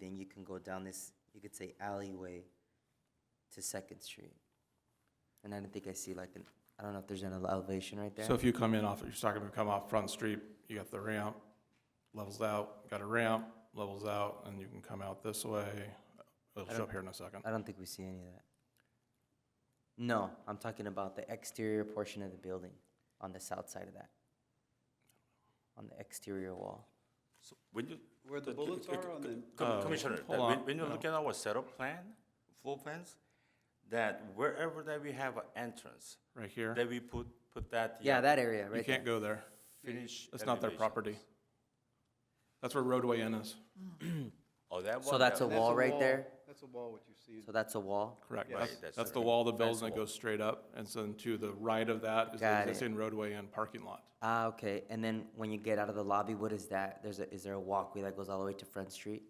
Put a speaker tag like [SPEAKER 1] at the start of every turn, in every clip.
[SPEAKER 1] can go down this, you could say alleyway to Second Street. And I don't think I see like an, I don't know if there's an elevation right there.
[SPEAKER 2] So if you come in off, you're talking about come off Front Street, you got the ramp, levels out, got a ramp, levels out, and you can come out this way. It'll show up here in a second.
[SPEAKER 1] I don't think we see any of that. No, I'm talking about the exterior portion of the building on the south side of that. On the exterior wall.
[SPEAKER 3] So When you.
[SPEAKER 4] Where the
[SPEAKER 3] c-
[SPEAKER 4] bullets
[SPEAKER 3] c- c-
[SPEAKER 4] are on
[SPEAKER 3] c-
[SPEAKER 4] the-
[SPEAKER 3] com-
[SPEAKER 2] Oh,
[SPEAKER 3] Commissioner, that
[SPEAKER 2] hold
[SPEAKER 3] when,
[SPEAKER 2] on,
[SPEAKER 3] when you
[SPEAKER 2] no.
[SPEAKER 3] look at our setup plan, floor plans, that wherever that we have an entrance,
[SPEAKER 2] Right here,
[SPEAKER 3] that we put, put that.
[SPEAKER 1] Yeah,
[SPEAKER 3] uh,
[SPEAKER 1] that area,
[SPEAKER 2] you
[SPEAKER 1] right there.
[SPEAKER 2] can't go there.
[SPEAKER 3] Finish.
[SPEAKER 2] That's not their
[SPEAKER 3] elevations.
[SPEAKER 2] property. That's where roadway in is,
[SPEAKER 3] Oh, that one.
[SPEAKER 1] So that's
[SPEAKER 3] there.
[SPEAKER 1] a
[SPEAKER 4] That's
[SPEAKER 1] wall right
[SPEAKER 4] wall-
[SPEAKER 1] there?
[SPEAKER 4] That's a wall, what you see.
[SPEAKER 1] So that's a wall?
[SPEAKER 2] correct?
[SPEAKER 3] Right,
[SPEAKER 2] That's-
[SPEAKER 3] that's
[SPEAKER 2] That's
[SPEAKER 3] the-
[SPEAKER 2] the wall of the
[SPEAKER 3] that's
[SPEAKER 2] building that
[SPEAKER 3] the wall.
[SPEAKER 2] goes straight up, and so then to the right of that is the
[SPEAKER 1] Got it.
[SPEAKER 2] existing roadway and parking lot.
[SPEAKER 1] Ah, okay. And then when you get out of the lobby, what is that? There's a, is there a walkway that goes all the way to Front Street?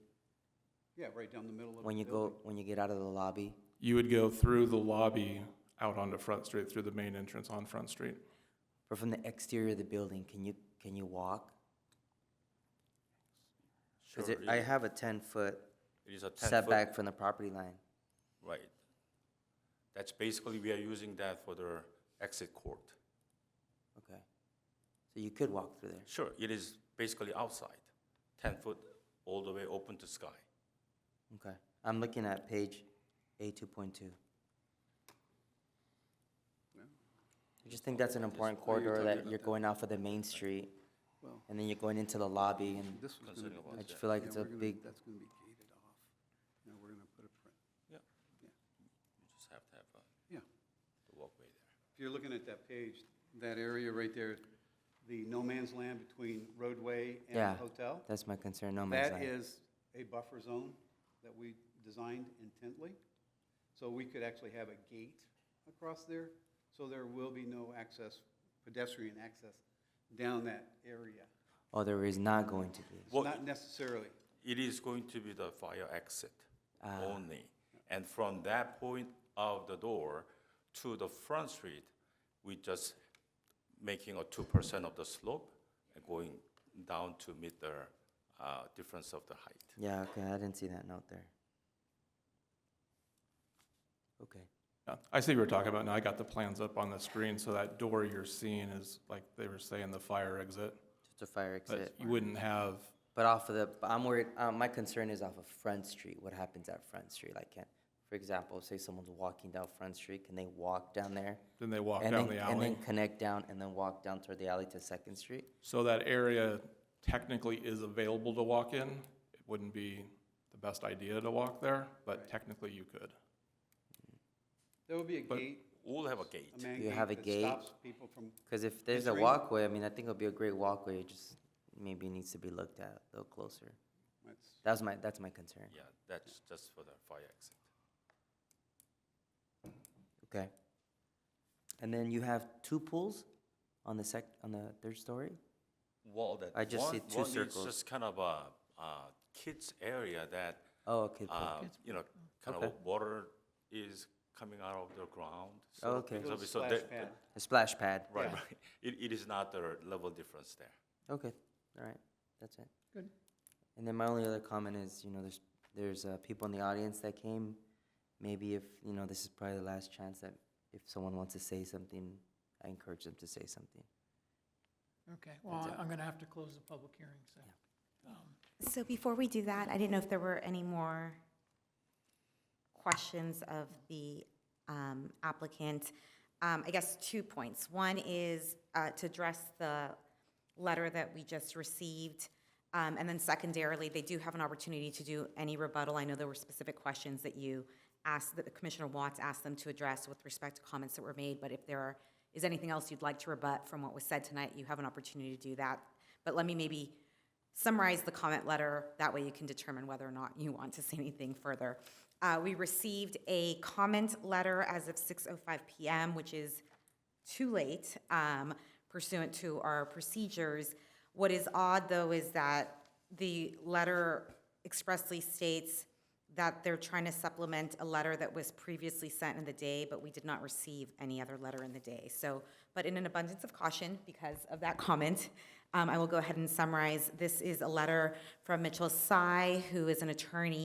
[SPEAKER 4] Yeah, right down the middle of the
[SPEAKER 1] When you
[SPEAKER 4] building.
[SPEAKER 1] go, when you get out of the lobby?
[SPEAKER 2] You would go through the lobby out onto Front Street, through the main entrance on Front Street.
[SPEAKER 1] Or from the exterior of the building, can you, can you walk?
[SPEAKER 3] Sure,
[SPEAKER 1] Cause it,
[SPEAKER 3] it-
[SPEAKER 1] I have a ten-foot
[SPEAKER 3] It is a ten foot,
[SPEAKER 1] setback from the property line.
[SPEAKER 3] right. That's basically, we are using that for the exit court.
[SPEAKER 1] Okay. So you could walk through there.
[SPEAKER 3] Sure, it is basically outside, ten foot, all the way open to sky.
[SPEAKER 1] Okay, I'm looking at page A two point two. I just think that's an important corridor that you're going off of the main street,
[SPEAKER 4] Well-
[SPEAKER 1] and then you're going into the lobby, and
[SPEAKER 4] This was gonna,
[SPEAKER 3] Considering
[SPEAKER 4] be-
[SPEAKER 3] about
[SPEAKER 1] I
[SPEAKER 4] that's-
[SPEAKER 1] just feel like
[SPEAKER 4] yeah,
[SPEAKER 1] it's a
[SPEAKER 4] we're gonna-
[SPEAKER 1] big,
[SPEAKER 4] That's gonna be gated off. Now, we're gonna put a print,
[SPEAKER 3] You just have to have uh,
[SPEAKER 4] yeah.
[SPEAKER 3] the walkway there.
[SPEAKER 4] If you're looking at that page, that area right there, the no man's land between roadway and
[SPEAKER 1] yeah,
[SPEAKER 4] the hotel.
[SPEAKER 1] that's my concern, no man's
[SPEAKER 4] That
[SPEAKER 1] land.
[SPEAKER 4] is a buffer zone that we designed intently, so we could actually have a gate across there, so there will be no access, pedestrian access down that area.
[SPEAKER 1] Oh, there is not going to be,
[SPEAKER 3] Well,
[SPEAKER 4] Not necessarily,
[SPEAKER 3] It is going to be the fire exit
[SPEAKER 1] Ah.
[SPEAKER 3] only. And from that point of the door to the front street, we just making a two percent of the slope and going down to meet the uh, difference of the height.
[SPEAKER 1] yeah, okay, I didn't see that note there. Okay,
[SPEAKER 2] Yeah, I see what you're talking about now. I got the plans up on the screen, so that door you're seeing is like they were saying the fire exit.
[SPEAKER 1] just a fire exit,
[SPEAKER 2] But you wouldn't have,
[SPEAKER 1] but off of the, but I'm worried, uh, my concern is off of Front Street, what happens at Front Street, like, can, for example, say someone's walking down Front Street, can they walk down there?
[SPEAKER 2] then they walk
[SPEAKER 1] and
[SPEAKER 2] down
[SPEAKER 1] then,
[SPEAKER 2] the
[SPEAKER 1] and then
[SPEAKER 2] alley.
[SPEAKER 1] connect down and then walk down toward the alley to Second Street.
[SPEAKER 2] So that area technically is available to walk in. It wouldn't be the best idea to walk there, but technically you could.
[SPEAKER 4] there will be a
[SPEAKER 2] But-
[SPEAKER 4] gate,
[SPEAKER 3] We'll have a gate.
[SPEAKER 4] a man
[SPEAKER 1] You have a
[SPEAKER 4] gate
[SPEAKER 1] gate?
[SPEAKER 4] that stops people from,
[SPEAKER 1] Because if there's a
[SPEAKER 4] Entering-
[SPEAKER 1] walkway, I mean, I think it'll be a great walkway. It just maybe needs to be looked at a little closer.
[SPEAKER 4] that's-
[SPEAKER 1] That's my that's my concern.
[SPEAKER 3] Yeah, that's just for the fire exit.
[SPEAKER 1] Okay. And then you have two pools on the sec on the third story.
[SPEAKER 3] Well, that.
[SPEAKER 1] I just see
[SPEAKER 3] one-
[SPEAKER 1] two
[SPEAKER 3] one is
[SPEAKER 1] circles.
[SPEAKER 3] Just kind of a, uh, kids area that,
[SPEAKER 1] Oh, okay. pool.
[SPEAKER 3] uh, you know, kind of
[SPEAKER 1] Okay.
[SPEAKER 3] water is coming out of the ground. so
[SPEAKER 1] Oh, okay.
[SPEAKER 3] things
[SPEAKER 4] Little
[SPEAKER 3] of it. So
[SPEAKER 4] splash
[SPEAKER 3] that-
[SPEAKER 4] pad.
[SPEAKER 1] a splash pad.
[SPEAKER 3] Right, right. It, it is not the level difference there.
[SPEAKER 1] Okay. All right. That's it.
[SPEAKER 4] Good.
[SPEAKER 1] And then my only other comment is, you know, there's there's uh, people in the audience that came. Maybe if you know, this is probably the last chance that if someone wants to say something, I encourage them to say something.
[SPEAKER 5] Okay, well, I- I'm going to have to close the public hearing, so.
[SPEAKER 6] So before we do that, I didn't know if there were any more questions of the um, applicant. Um, I guess two points. One is uh, to address the letter that we just received. Um, And then secondarily, they do have an opportunity to do any rebuttal. I know there were specific questions that you asked, that Commissioner Watts asked them to address with respect to comments that were made. But if there are- is anything else you'd like to rebut from what was said tonight, you have an opportunity to do that. But let me maybe summarize the comment letter. That way you can determine whether or not you want to say anything further. Uh, we received a comment letter as of 6.05 p.m., which is too late um, pursuant to our procedures. What is odd, though, is that the letter expressly states that they're trying to supplement a letter that was previously sent in the day, but we did not receive any other letter in the day. So, but in an abundance of caution, because of that comment, um, I will go ahead and summarize. This is a letter from Mitchell Sy, who is an attorney